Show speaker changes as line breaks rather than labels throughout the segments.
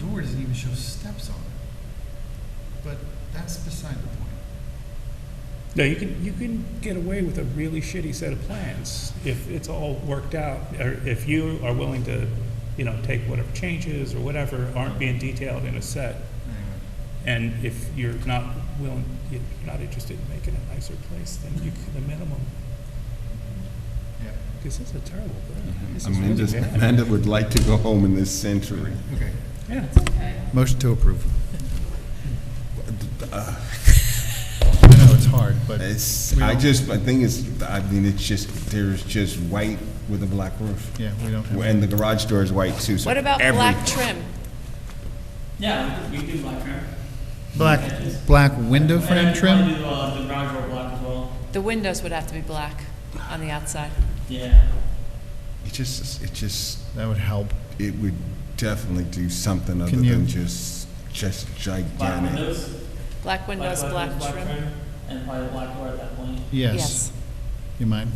door doesn't even show steps on it. But that's beside the point.
No, you can, you can get away with a really shitty set of plans if it's all worked out, or if you are willing to, you know, take whatever changes or whatever aren't being detailed in a set,
Anyway,
and if you're not willing, you're not interested in making a nicer place, then you, can- the minimum,
yeah,
because it's a terrible plan.
Mm-hmm.
This is really
Amanda,
bad.
Amanda would like to go home in this century.
okay.
Yeah.
Motion to approve.
Uh,
I know it's hard, but
It's,
We
I
don't-
just, the thing is, I mean, it's just, there's just white with a black roof.
yeah, we don't have.
And the garage door is white too, so.
What about
every-
black trim?
Yeah, we could do black trim.
Black, black window frame
And
trim?
we probably do uh, the garage door black as well.
The windows would have to be black on the outside.
Yeah.
It just, it just,
That would help.
it would definitely do something other
Can you-
than just, just
Black
gigantic.
windows.
Black windows, black
windows,
trim.
And probably the black door at that point.
Yes. You mind?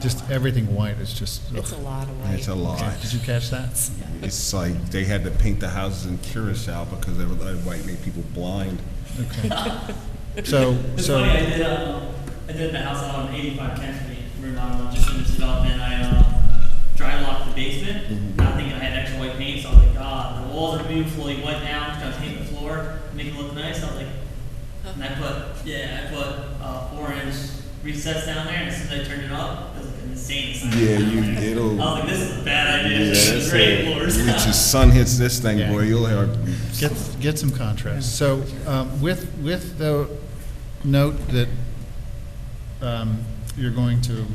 Just everything white is just.
It's a
ugh.
lot of
It's a
white.
lot.
Okay, Did you catch that?
It's like, they had to paint the houses in Curacao because they were, like, white made people blind.
Okay. So,
It's funny, I
so,
did, uh, I did the house out on 85 Kent Street remodel just in this development. I uh, dry locked the basement,
Mm-hmm.
not thinking I had extra white paint, so I was like, ah, the walls are beautifully white now, trying to paint the floor, make it look nice. I was like, and I put, yeah, I put uh, four inch recess down there, and as soon as I turned it up, it was like an insane size.
Yeah,
down
you,
there.
it'll.
I was like, this is a bad idea.
Yeah,
this is
that's
great
it.
floors.
When the sun hits this thing,
Yeah.
boy, you'll have.
get, get some contrast. So, um, with, with the note that, um, you're going to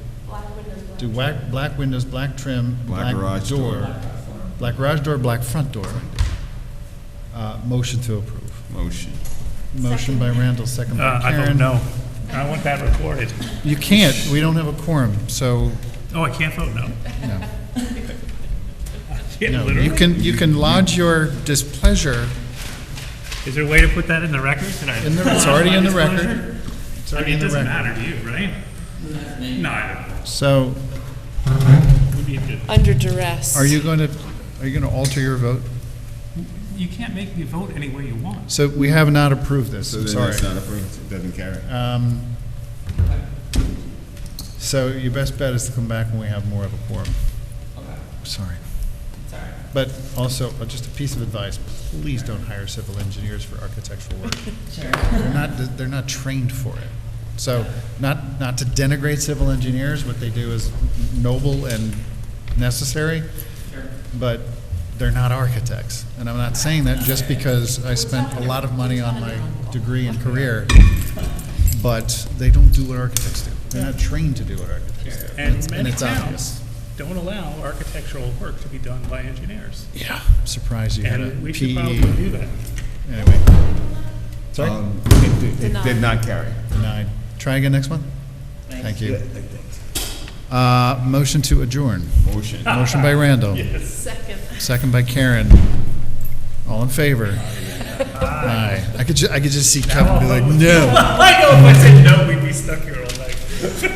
do black, black windows, black trim,
Black
black
garage door.
door. Black garage door, black front door. Uh, motion to approve.
motion.
Motion by Randall, second by
Uh, I
Karen.
don't know. I want that recorded.
You can't, we don't have a quorum, so,
Oh, I can't vote no.
no.
Yeah,
No, you
literally.
can, you can lodge your displeasure
Is there a way to put that in the record? Can I-
in the, it's already in the record.
Disclosure?
It's
I
already
mean,
in
it
the
doesn't
record.
matter to you, right? No, I don't know.
So,
We need to-
Under duress.
are you going to, are you going to alter your vote?
You can't make me vote any way you want.
So we have not approved this,
So
I'm
then
sorry.
that's not approved. It doesn't carry.
Um, So your best bet is to come back when we have more of a quorum. Sorry. But also, uh, just a piece of advice, please don't hire civil engineers for architectural work. They're not, they're not trained for it. So, not, not to denigrate civil engineers, what they do is noble and necessary, but they're not architects. And I'm not saying that just because I spent a lot of money on my degree and career, but they don't do what architects do. They're not trained to do what architects do. it's-
And many
it's obvious.
towns don't allow architectural work to be done by engineers.
Yeah. Surprised you had a
And we should probably
PE.
do that.
Anyway. Sorry?
Um, it did- It
Denied.
did not carry.
Denied. Try again next one?
Thanks.
Thank you. Uh, motion to adjourn.
Motion.
Motion by Randall.
Second.
Second by Karen. All in favor? Aye. I could ju, I could just see Kevin be like, no.
I know if I said no, we'd be stuck here all night.